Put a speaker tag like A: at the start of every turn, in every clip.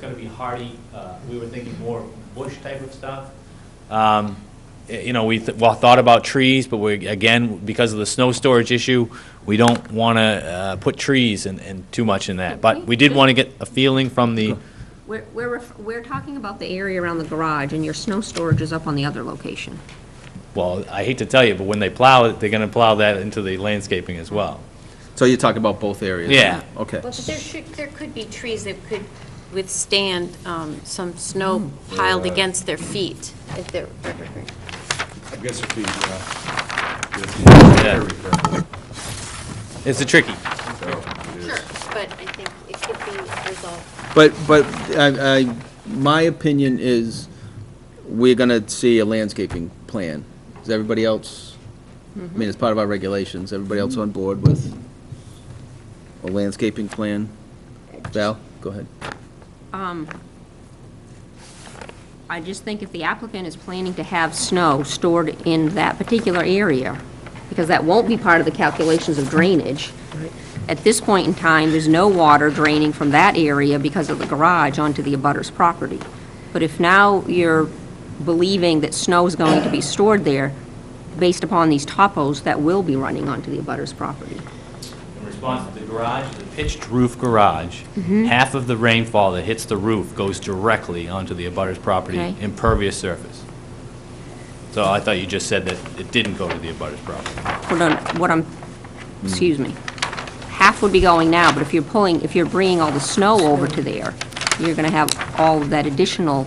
A: gonna be hardy, uh, we were thinking more bush type of stuff. Um, y- You know, we, th- well, thought about trees, but we, again, because of the snow storage issue, we don't want to put trees and- and too much in that. But we did want to get a feeling from the,
B: We're, we're, ref- we're talking about the area around the garage, and your snow storage is up on the other location.
A: well, I hate to tell you, but when they plow it, they're going to plow that into the landscaping as well.
C: So you're talking about both areas?
A: Yeah.
C: Okay.
D: Well, but there should, there could be trees that could withstand um, some snow
B: Hmm.
D: piled against their feet if they're evergreen.
E: I guess if we, uh, yes,
A: Yeah.
E: very careful,
A: It's a tricky.
E: so it is.
D: Sure, but I think it could be resolved.
C: But, but I, I, my opinion is we're gonna see a landscaping plan. Is everybody else, I mean, it's part of our regulations, everybody else on board with a landscaping plan? Val, go ahead.
B: I just think if the applicant is planning to have snow stored in that particular area, because that won't be part of the calculations of drainage, at this point in time, there's no water draining from that area because of the garage onto the abutter's property. But if now you're believing that snow is going to be stored there, based upon these topos, that will be running onto the abutter's property.
A: In response to the garage, the pitched roof garage,
B: Mm-hmm.
A: half of the rainfall that hits the roof goes directly onto the abutter's property,
B: Okay.
A: impervious surface. So I thought you just said that it didn't go to the abutter's property.
B: What I'm, what I'm, excuse me, half would be going now, but if you're pulling, if you're bringing all the snow over to there, you're gonna have all of that additional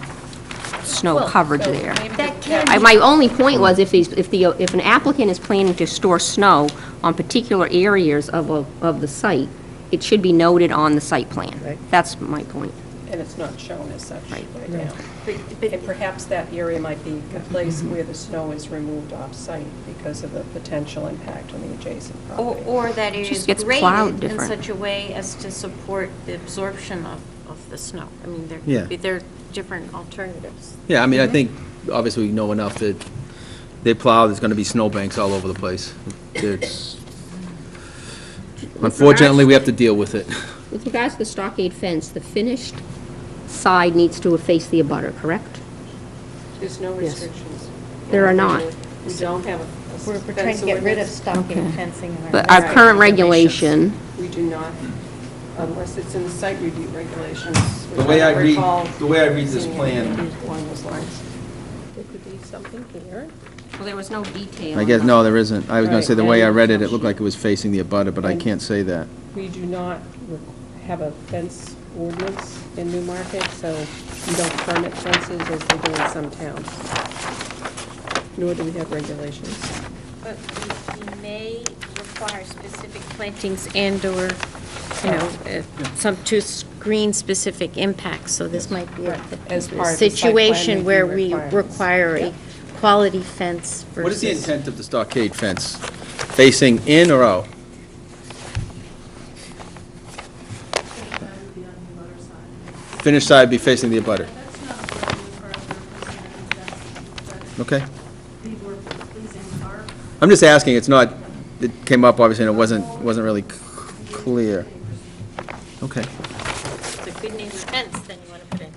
B: snow coverage there.
D: That can
B: I- My only point was if these, if the, if an applicant is planning to store snow on particular areas of, a- of the site, it should be noted on the site plan.
F: Right.
B: That's my point.
F: And it's not shown as such
B: Right.
F: right now.
D: but-
F: And perhaps that area might be a place
G: Mm-hmm.
F: where the snow is removed off-site because of the potential impact on the adjacent
D: Or,
F: property.
D: or that it is
B: Just gets plowed
D: graded in
B: different.
D: such a way as to support the absorption of, of the snow. I mean, there
C: Yeah.
D: could be, there are different alternatives.
C: Yeah, I mean, I think, obviously, we know enough that they plow, there's gonna be snowbanks all over the place. It's, unfortunately, we have to deal with it.
B: With regards to the stockade fence, the finished side needs to face the abutter, correct?
F: There's no restrictions.
B: There are not.
F: We don't have a- a
G: We're, we're trying
F: fence
G: to get rid of
F: ordinance.
G: stocking fencing in our.
B: But our
F: Right.
B: current regulation,
F: We do not, unless it's in the site review regulations.
C: The way I read-
F: recall
C: the way I read this
F: seeing
C: plan-
F: anything Along those lines. There could be something here.
B: well, there was no detail.
C: I guess, no, there isn't. I was gonna say, the way I
F: Right.
C: read it, it looked like it was facing the abutter, but I can't say that.
F: We do not re- have a fence ordinance in Newmarket, so we don't permit fences as they do in some towns. Nor do we have regulations.
D: But we we may require specific plantings and/or, you know, uh, some to screen specific impacts, so this might be a a
F: As part of the site plan
D: situation where we
F: review requirements.
D: require a
F: Yep.
D: quality fence versus.
C: What is the intent of the stockade fence? Facing in or out? Finished side be facing the abutter.
H: That's not what we
C: Okay.
H: refer to as the word pleasing our
C: I'm just asking, it's not, it came up obviously and it wasn't, wasn't really c- clear. Okay.
D: It's a good neighbor fence then you want to put in,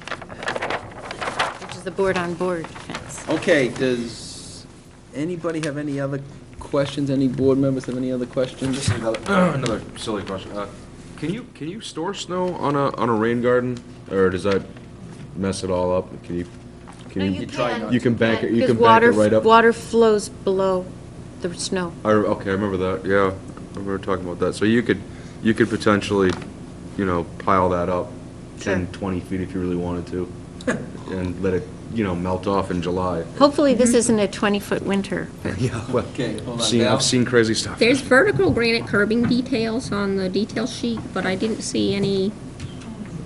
D: which is the board-on-board fence.
C: Okay, does anybody have any other questions? Any board members have any other questions?
E: Just another, another silly question. Uh, Can you, can you store snow on a, on a rain garden, or does that mess it all up? Can you,
D: No,
E: can
D: you
E: you?
C: try not
D: can.
C: to.
E: You can bank it, you can
D: Because
E: bank
D: water-
E: it right up.
D: Water flows below the snow.
E: I re- Okay, I remember that, yeah. I remember talking about that. So you could, you could potentially, you know, pile that up
D: Sure.
E: 10, 20 feet if you really wanted to, and let it, you know, melt off in July.
D: Hopefully, this
C: Mm-hmm.
D: isn't a 20-foot winter.
E: Yeah, well,
C: Okay, hold on,
E: seen-
C: Val.
E: I've seen crazy stuff.
B: There's vertical granite curbing details on the detail sheet, but I didn't see any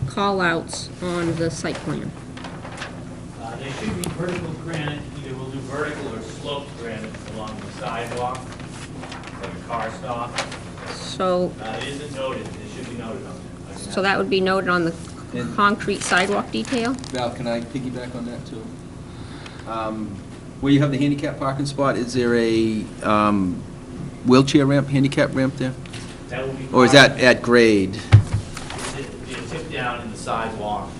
B: call-outs on the site
A: Uh,
B: plan.
A: They should be vertical granite, either we'll do vertical or sloped granite along the sidewalk, like a car stop.
B: So,
A: Uh, It isn't noted, it should be noted on there.
B: so that would be noted on the concrete sidewalk detail?
C: Val, can I piggyback on that, too? Um, Where you have the handicap parking spot, is there a um, wheelchair ramp, handicap ramp there?
A: That will be.
C: Or is that at grade?
A: It's it's tipped down in the sidewalk